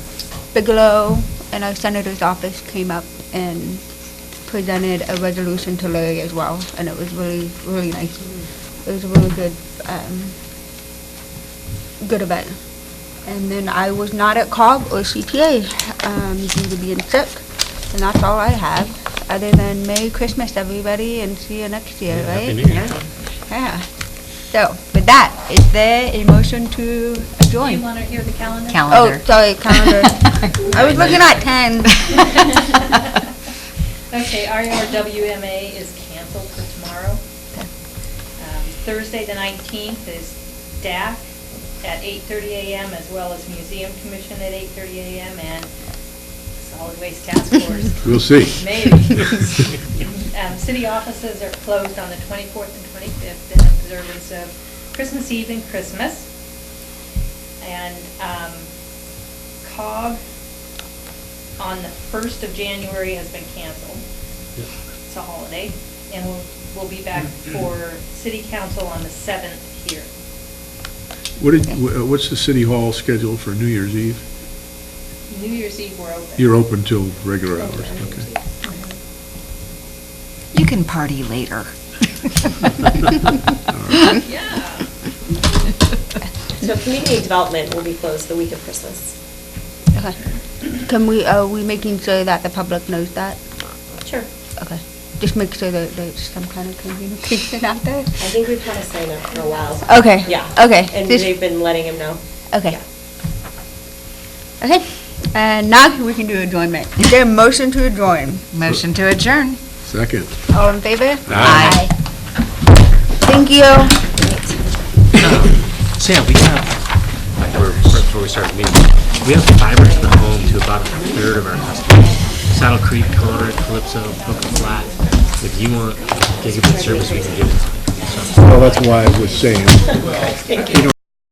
Bigelow and our senator's office came up and presented a resolution to Larry as well, and it was really, really nice. It was a really good, um, good event. And then I was not at COG or CTA, um, due to being sick, and that's all I have, other than Merry Christmas, everybody, and see you next year, right? Happy New Year. Yeah. So, with that, is there a motion to Do you adjourn? want to hear the calendar? Oh, calendar. sorry, calendar. I was looking at 10. Okay, uh, E RRWMA is canceled for tomorrow. Um, Thursday, the 19th, is DAC at 8:30 a.m., as well as Museum Commission at 8:30 a.m., and Solid Waste Task Force. We'll see. Maybe. Um, City offices are closed on the 24th and 25th in observance of Christmas Eve and Christmas. And um, COG on the 1st of January has been canceled. Yep. It's a holiday. And we'll, we'll be back for city council on the 7th here. What did, wh- uh, what's the city hall schedule for New Year's Eve? New Year's Eve, we're open. You're open till regular hours, Open on New Year's okay. Eve. You can party later. Yeah. So community development will be closed the week of Christmas. Okay. Can we, are we making sure that the public knows that? Sure. Okay. Just make sure that there's some kind of communication out there. I think we've had a sign up for a while. Okay. Yeah. Okay. And Just- they've been letting him know. Okay. Okay. And now we can do adjournment. Is there a motion to adjourn? Motion to adjourn. Second. All in favor? Aye. Thank you. Sam, we have, like, we're- right before we start the meeting, we have fiber to the home to about a third of our customers. Saddle Creek, Connor, Calypso, Boca Flat. If you want gigabit service, we can give it to you. Well, that's why I was saying,